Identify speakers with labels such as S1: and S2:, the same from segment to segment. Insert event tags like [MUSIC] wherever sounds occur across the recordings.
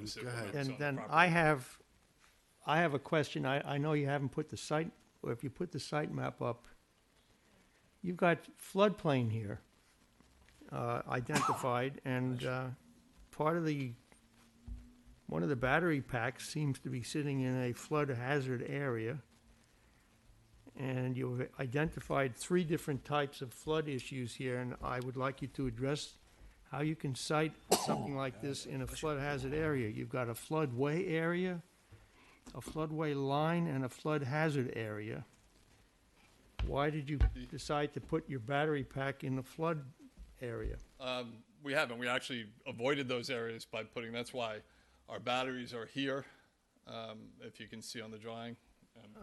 S1: this
S2: Go ahead.
S1: implements
S3: And
S1: on the
S3: then I
S1: property.
S3: have, I have a question. I, I know you haven't put the site, or if you put the site map up, you've got floodplain here uh,
S1: [COUGHS]
S3: identified, and uh, part of the, one of the battery packs seems to be sitting in a flood hazard area. And you've identified three different types of flood issues here, and I would like you to address how you can cite something like this in a flood hazard area. You've got a floodway area, a floodway line, and a flood hazard area. Why did you decide to put your battery pack in the flood area?
S1: Um, we haven't. We actually avoided those areas by putting, that's why our batteries are here, um, if you can see on the drawing.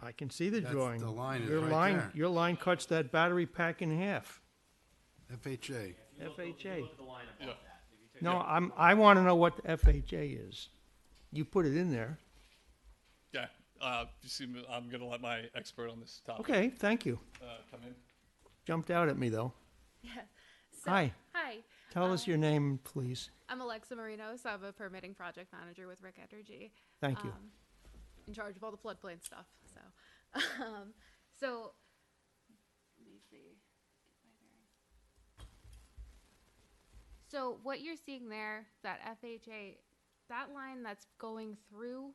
S3: I can see the
S2: That's-
S3: drawing.
S2: the line is
S3: Your
S2: right
S3: line-
S2: there.
S3: Your line cuts that battery pack in half.
S2: FHA.
S3: FHA.
S1: Yeah.
S3: No, I'm, I want to know what the FHA is. You put it in there.
S1: Yeah. Uh, you see, me- I'm going to let my expert on this topic
S3: Okay, thank you.
S1: uh, come in.
S3: Jumped out at me, though.
S4: So-
S3: Hi.
S4: Hi.
S3: Tell us your name, please.
S4: I'm Alexa Marino, so I'm a permitting project manager with Rick Energy.
S3: Thank you.
S4: um, In charge of all the floodplain stuff, so. [LAUGHS] um, So, let me see. Get my bearing. So what you're seeing there, that FHA, that line that's going through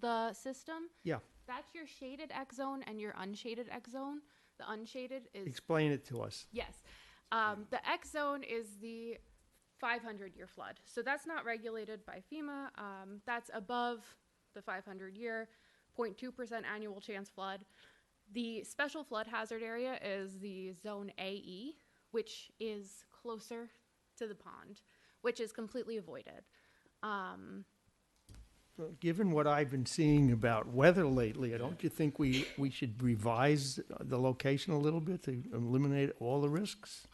S4: the system,
S3: Yeah,
S4: that's your shaded X zone and your unshaded X zone. The unshaded is
S3: explain it to us.
S4: Yes. Um, the X zone is the 500 year flood. So that's not regulated by FEMA. Um, that's above the 500 year 0.2% annual chance flood. The special flood hazard area is the zone AE, which is closer to the pond, which is completely avoided. Um,
S3: Given what I've been seeing about weather lately, don't you think we, we should revise the location a little bit to eliminate all the risks?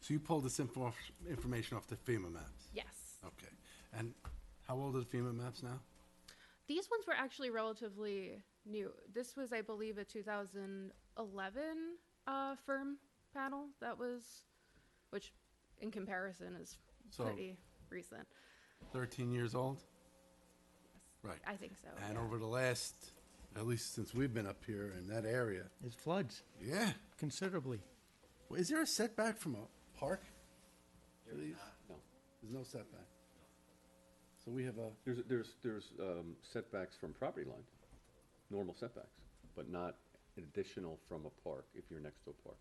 S2: So you pulled this info, off- information off the FEMA maps?
S4: yes.
S2: Okay. And how old are the FEMA maps now?
S4: These ones were actually relatively new. This was, I believe, a 2011 uh, firm panel that was, which in comparison is
S2: So-
S4: pretty recent.
S2: Thirteen years old? Right.
S4: I think so.
S2: And
S4: yeah.
S2: over the last, at least since we've been up here in that area,
S3: It floods
S2: yeah.
S3: considerably.
S2: Well, Is there a setback from a park? There is not, no. There's no setback? So we have a,
S5: There's, there's, there's um, setbacks from property line, normal setbacks, but not additional from a park, if you're next to a park.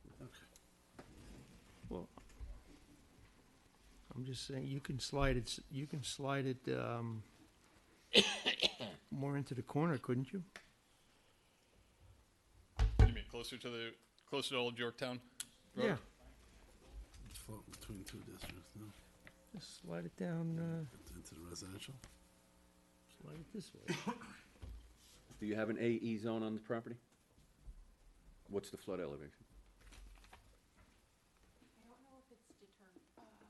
S3: Well, I'm just saying, you can slide it, s- you can slide it, um, [COUGHS] more into the corner, couldn't you?
S1: What do you mean, closer to the, closer to old Yorktown? Road?
S3: Yeah,
S2: it's floating between two districts, no?
S3: just slide it down, uh,
S2: Into the residential?
S3: slide it this way. [COUGHS]
S5: Do you have an AE zone on the property? What's the flood elevation?
S4: I don't know if it's determined. uh,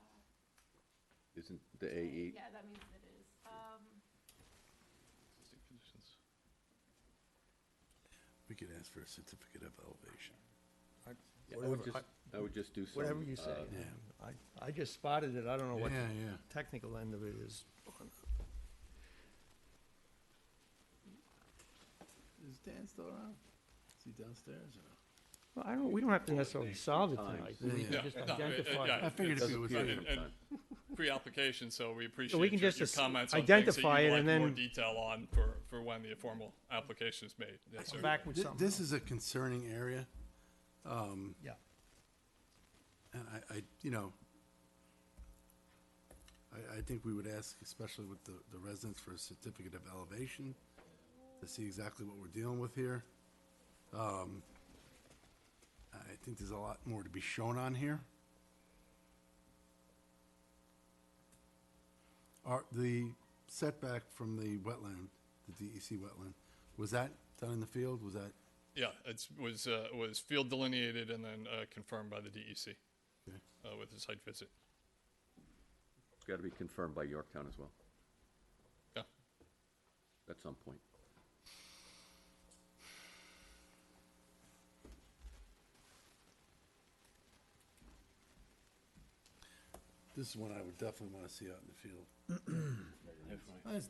S5: Isn't the E? AE,
S4: yeah, that means it is. Um,
S1: Existing conditions.
S2: We could ask for a certificate of elevation.
S5: Yeah, I would just, I would just do some.
S3: Whatever you say.
S5: uh,
S3: I, I just spotted it, I don't know what the
S2: Yeah, yeah.
S3: technical end of it is.
S2: Is Dan still around? Is he downstairs or?
S3: Well, I don't, we don't have to necessarily solve it tonight,
S5: Times.
S3: we
S1: Yeah.
S3: can just
S1: No, it- it-
S3: identify.
S1: yeah,
S3: it.
S2: I figured if
S5: doesn't
S2: he was
S5: appear
S2: here.
S5: to
S1: And, and pre-application, so we appreciate
S3: can
S1: your,
S3: just
S1: your
S3: as-
S1: comments on things that you'd
S3: identify it
S1: like
S3: and
S1: more
S3: then-
S1: detail on for, for when the formal application is made. Yes, sir.
S3: Back with
S2: Thi-
S3: something.
S2: This is a concerning area,
S3: Yeah,
S2: and I, I, you know, I, I think we would ask, especially with the, the residents, for a certificate of elevation to see exactly what we're dealing with here. Um, I think there's a lot more to be shown on here. Are, the setback from the wetland, the DEC wetland, was that done in the field? Was that?
S1: Yeah, it was, uh, was field delineated and then uh, confirmed by the DEC
S2: Okay.
S1: uh, with the site visit.
S5: It's gotta be confirmed by Yorktown as well,
S1: Yeah.
S5: at some point.
S2: This is one I would definitely want to see out in the field. That's